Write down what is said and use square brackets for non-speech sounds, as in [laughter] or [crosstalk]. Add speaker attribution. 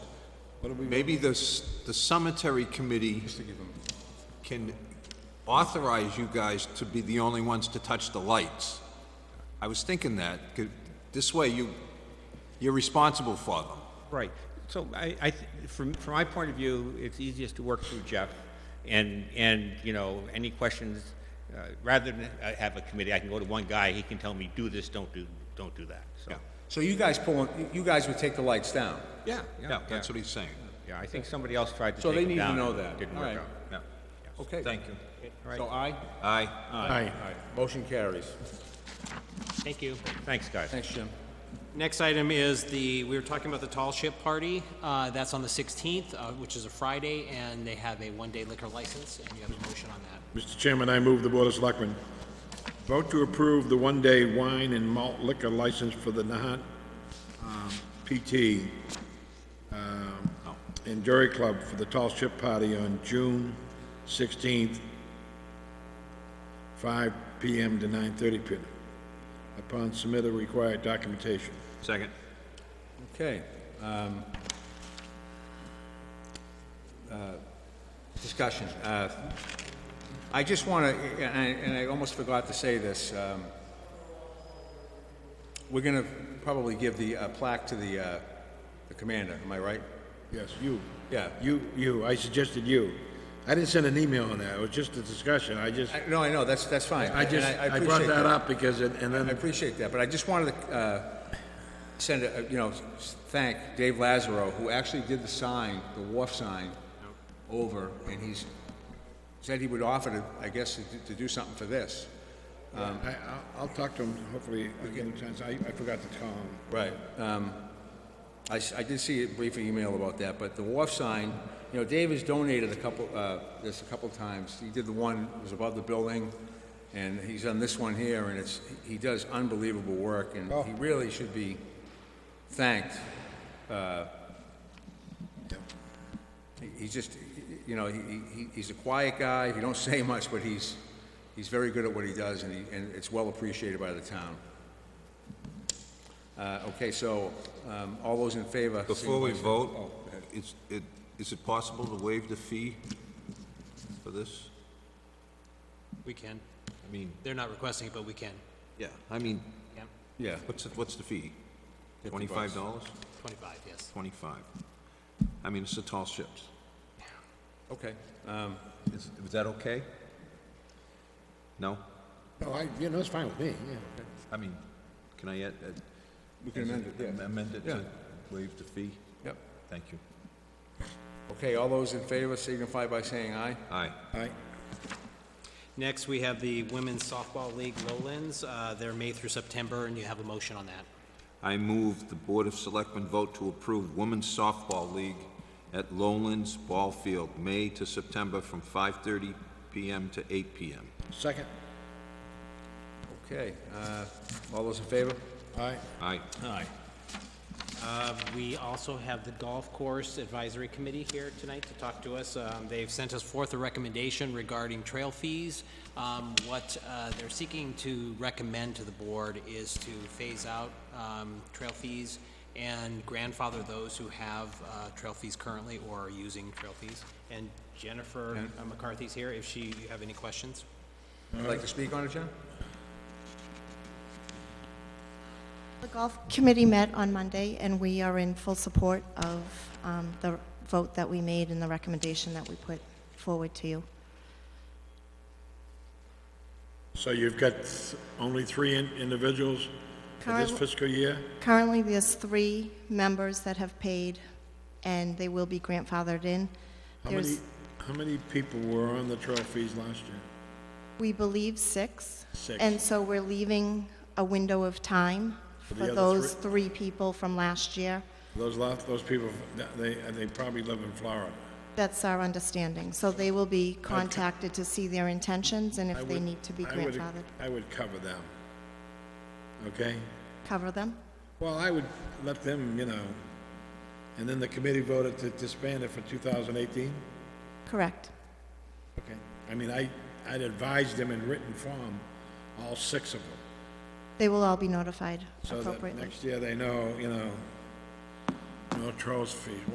Speaker 1: What are we?
Speaker 2: Maybe the, s- the cemetery committee can authorize you guys to be the only ones to touch the lights. I was thinking that, 'cause this way you, you're responsible for them.
Speaker 3: Right. So I, I, th- from, from my point of view, it's easiest to work through Jeff. And, and, you know, any questions, uh, rather than uh, have a committee, I can go to one guy, he can tell me, do this, don't do, don't do that, so.
Speaker 4: So you guys pulling, you guys would take the lights down?
Speaker 3: Yeah,
Speaker 2: Yeah, that's what he's saying.
Speaker 3: Yeah, I think somebody else tried to
Speaker 4: So
Speaker 3: take
Speaker 4: they
Speaker 3: him
Speaker 4: need to
Speaker 3: down.
Speaker 4: know
Speaker 3: and
Speaker 4: that.
Speaker 3: Didn't
Speaker 4: All
Speaker 3: work
Speaker 4: right.
Speaker 3: out.
Speaker 2: Yeah.
Speaker 4: Okay.
Speaker 2: Thank you.
Speaker 4: So aye?
Speaker 2: Aye.
Speaker 4: Aye. Motion carries.
Speaker 5: Thank you.
Speaker 3: Thanks, guys.
Speaker 4: Thanks, Jim.
Speaker 5: Next item is the, we were talking about the Tall Ship Party. Uh, That's on the 16th, uh, which is a Friday, and they have a one-day liquor license, and you have a motion on that.
Speaker 6: Mr. Chairman, I move the Board of Selectmen vote to approve the one-day wine and malt liquor license for the Nahat um, PT um, and Jury Club for the Tall Ship Party on June 16th, 5 PM to 9:30 PM, upon submit the required documentation.
Speaker 2: Second.
Speaker 4: Okay. um, uh, Discussion. Uh, I just want to, and I, and I almost forgot to say this. um, We're going to probably give the uh, plaque to the, uh, the commander, am I right?
Speaker 6: Yes, you.
Speaker 4: Yeah.
Speaker 6: You, you, I suggested you. I didn't send an email on that, it was just a discussion, I just,
Speaker 4: I- No, I know, that's, that's fine.
Speaker 6: I just,
Speaker 4: and
Speaker 6: I brought
Speaker 4: appreciate
Speaker 6: that up because, it- and then...
Speaker 4: I appreciate that, but I just wanted to uh, send, a you know, s- thank Dave Lazaro, who actually did the sign, the wharf sign, over, and he's, said he would offer to, I guess, to- to do something for this.
Speaker 6: I, I'll- I'll talk to him, hopefully, I get a chance, I, I forgot to call him.
Speaker 4: Right. um, I s- I did see a brief email about that, but the wharf sign, you know, Dave has donated a couple, uh, this a couple times. He did the one, that was above the building, and he's done this one here, and it's, he does unbelievable work, and he really should be thanked. Uh, he- He's just, you know, he, he, he's a quiet guy, he don't [laughs] say much, but he's, he's very good at what he does, and he, and it's well appreciated by the town. Uh, Okay, so um, all those in favor?
Speaker 2: Before we
Speaker 4: signify-
Speaker 2: vote, is, it, is it possible to waive the fee for this?
Speaker 5: We can.
Speaker 2: I mean,
Speaker 5: They're not requesting it, but we can.
Speaker 2: yeah, I mean,
Speaker 5: Yeah,
Speaker 4: Yeah,
Speaker 2: what's, the- what's the fee? Twenty-five dollars?
Speaker 5: 25, yes.
Speaker 2: Twenty-five. I mean, it's the tall ships.
Speaker 4: okay. Um,
Speaker 2: Is, is that okay? No?
Speaker 6: No, Oh, I, you know, it's fine with me, yeah.
Speaker 2: I mean, can I add? add-
Speaker 4: We can amend it, yeah.
Speaker 2: Amend it
Speaker 4: Yeah.
Speaker 2: to waive the fee?
Speaker 4: Yep.
Speaker 2: Thank you.
Speaker 4: Okay, all those in favor signify by saying aye.
Speaker 2: Aye.
Speaker 6: I,
Speaker 5: Next, we have the Women's Softball League Lowlands. Uh, They're May through September, and you have a motion on that.
Speaker 2: I move the Board of Selectmen vote to approve Women's Softball League at Lowlands Ball Field, May to September, from 5:30 PM to 8 PM.
Speaker 6: second,
Speaker 4: Okay, uh, all those in favor?
Speaker 6: I,
Speaker 2: Aye.
Speaker 4: Aye.
Speaker 5: We also have the Golf Course Advisory Committee here tonight to talk to us. Um, They've sent us forth a recommendation regarding trail fees. Um, What uh, they're seeking to recommend to the board is to phase out um, trail fees and grandfather those who have uh, trail fees currently or are using trail fees. And Jennifer uh, McCarthy's here, if she, you have any questions?
Speaker 4: Would you like to speak on it, John?
Speaker 7: The golf committee met on Monday, and we are in full support of um, the vote that we made and the recommendation that we put forward to you.
Speaker 6: so you've got th- only three in- individuals for this
Speaker 7: Carl-
Speaker 6: fiscal year?
Speaker 7: Currently, there's three members that have paid, and they will be grandfathered in.
Speaker 6: How many,
Speaker 7: There's,
Speaker 6: how many people were on the trail fees last year?
Speaker 7: we believe, six.
Speaker 6: Six.
Speaker 7: And so we're leaving a window of time
Speaker 6: For the
Speaker 7: for
Speaker 6: other
Speaker 7: those three people from last year.
Speaker 6: Those lot, those people, they, they probably live in Florida.
Speaker 7: That's our understanding. So they will be contacted to see their intentions and
Speaker 6: I
Speaker 7: if they
Speaker 6: would-
Speaker 7: need to be
Speaker 6: I would-
Speaker 7: grandfathered.
Speaker 6: I would cover them, okay?
Speaker 7: Cover them?
Speaker 6: Well, I would let them, you know, and then the committee voted to disband it for 2018?
Speaker 7: Correct.
Speaker 6: Okay. I mean, I, I'd advise them in written form, all six of them,
Speaker 7: They will all be notified
Speaker 6: so that
Speaker 7: appropriately.
Speaker 6: next year they know, you know, no trophies.